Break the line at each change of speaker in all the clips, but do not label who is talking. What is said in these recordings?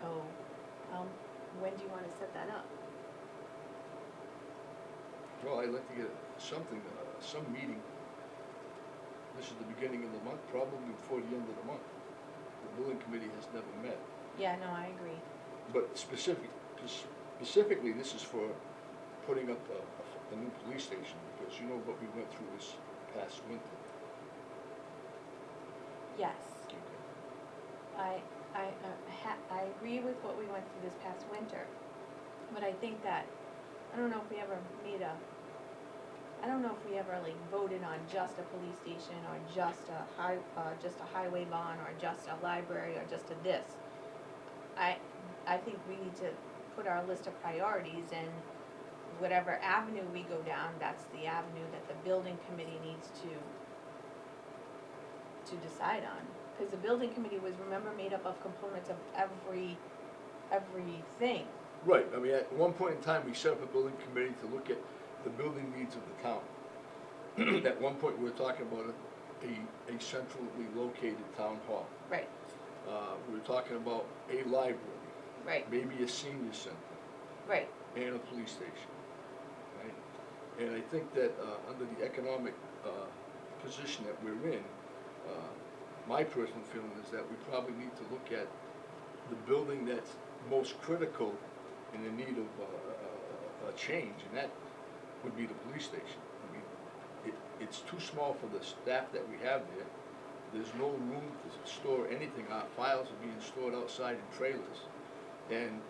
So, um, when do you wanna set that up?
Well, I'd like to get something, uh, some meeting. This is the beginning of the month, probably before the end of the month. The building committee has never met,
Yeah, no, I agree.
but specific, specifically, this is for putting up uh, a, a new police station, because you know what we went through this past winter.
Yes, I, I, uh, ha, I agree with what we went through this past winter, but I think that, I don't know if we ever made a, I don't know if we ever like voted on just a police station or just a high, uh, just a highway bond or just a library or just a this. I, I think we need to put our list of priorities and whatever avenue we go down, that's the avenue that the building committee needs to, to decide on. Cause the building committee was, remember, made up of components of every, everything.
Right, I mean, at one point in time, we set up a building committee to look at the building needs of the town. At one point, we were talking about a, a centrally located town hall.
Right,
Uh, we were talking about a library,
right,
maybe a senior center,
right,
and a police station, right? And I think that, uh, under the economic, uh, position that we're in, uh, my personal feeling is that we probably need to look at the building that's most critical in the need of, uh, a, a change, and that would be the police station. I mean, it, it's too small for the staff that we have there. There's no room to store anything. Our files are being stored outside in trailers. And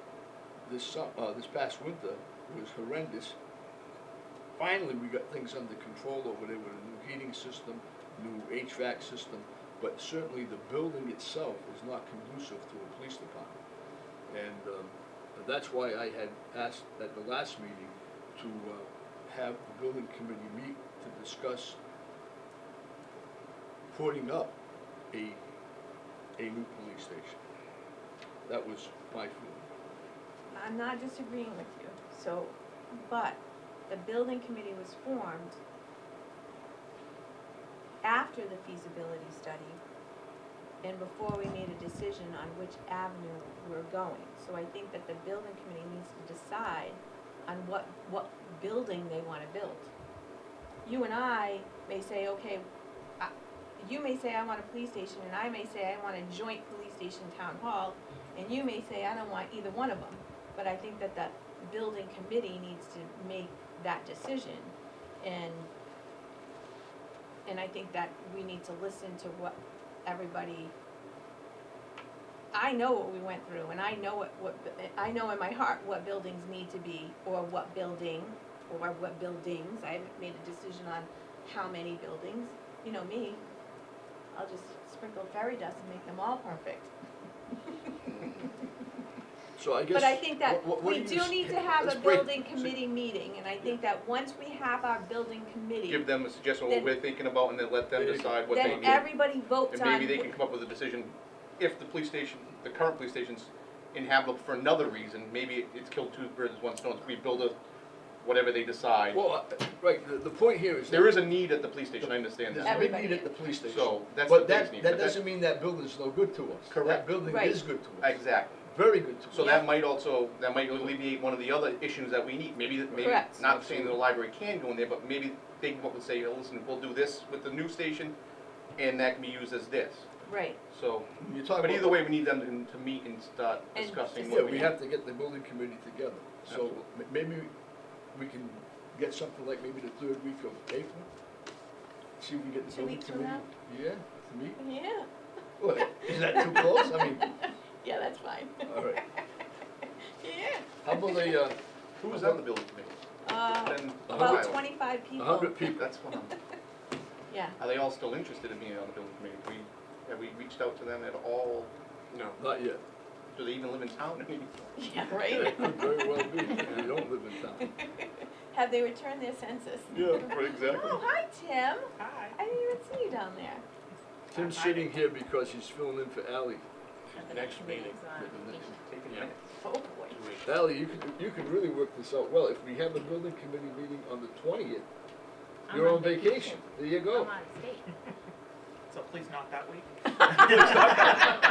this, su- uh, this past winter was horrendous. Finally, we got things under control over there with a new heating system, new HVAC system, but certainly the building itself is not conducive to a police department. And um, that's why I had asked at the last meeting to uh, have the building committee meet to discuss putting up a, a new police station. That was my feeling.
I'm not disagreeing with you, so, but the building committee was formed after the feasibility study and before we made a decision on which avenue we're going. So I think that the building committee needs to decide on what, what building they wanna build. You and I may say, okay, I- you may say I want a police station, and I may say I want a joint police station town hall, and you may say I don't want either one of them. But I think that the building committee needs to make that decision, and, and I think that we need to listen to what everybody, I know what we went through, and I know what, what, bu- I know in my heart what buildings need to be, or what building, or what buildings, I haven't made a decision on how many buildings, you know me, I'll just sprinkle fairy dust and make them all perfect.
So I guess.
But I think that
what- what- what
we
you
do
s-
need to have
let's
a
break-
building
so-
committee meeting, and I think that once we have our building committee,
give them a suggestion of what
Then-
we're thinking about and then let them
There you go.
decide what they
then
need.
everybody votes
And
on.
maybe they
wh-
can come up with a decision, if the police station, the current police station's inhabitable for another reason, maybe it- it's killed two birds with one stone, we build a, whatever they decide.
Well, uh, right, the, the point here is.
There is a need at the police station, I understand
There's
that.
a big
Everybody
need at
is.
the police station.
So, that's
But
the
that-
biggest need,
That
but that-
doesn't mean that building's no good to us. That
Correct.
building
Right.
is good to us.
Exactly.
Very good to us.
So that might also, that might alleviate one of the other issues that we need, maybe, that- maybe,
Correct.
not saying that the library can go in there, but maybe they can go up and say, "Oh, listen, we'll do this with the new station, and that can be used as this,
Right,
so.
You're talking
But
about-
either way, we need them to, to meet and start
And
discussing
Yeah,
what we
we
need.
have to get the building committee together. So
Absolutely.
m- maybe we can get something like maybe the third week of April. See if we can get the
Two
building
weeks from
committee.
now?
Yeah, to meet.
yeah,
What, is that too close? I mean,
yeah, that's fine.
Uh,
all right.
Yeah,
How about a, uh,
Who was on the building committee?
uh,
Then
about
Ohio.
twenty-five
a
people.
hundred people?
That's fine.
Yeah,
Are they all still interested in being on the building committee? We, have we reached out to them at all? No.
Not yet.
Do they even live in town anymore?
yeah,
It
right.
could very well be, that we don't live in town.
Have they returned their census?
right,
Oh, hi, Tim,
Hi.
I didn't even see you down there.
Tim's sitting here because he's filling in for Ally.
At the next meeting.
Taking
Yeah.
minutes.
Oh, boy.
Ally, you can, you can really work this out well. If we have a building committee meeting on the twentieth, you're on
Oh.
vacation. There you
I'm
go.
out of state.
So please not that week.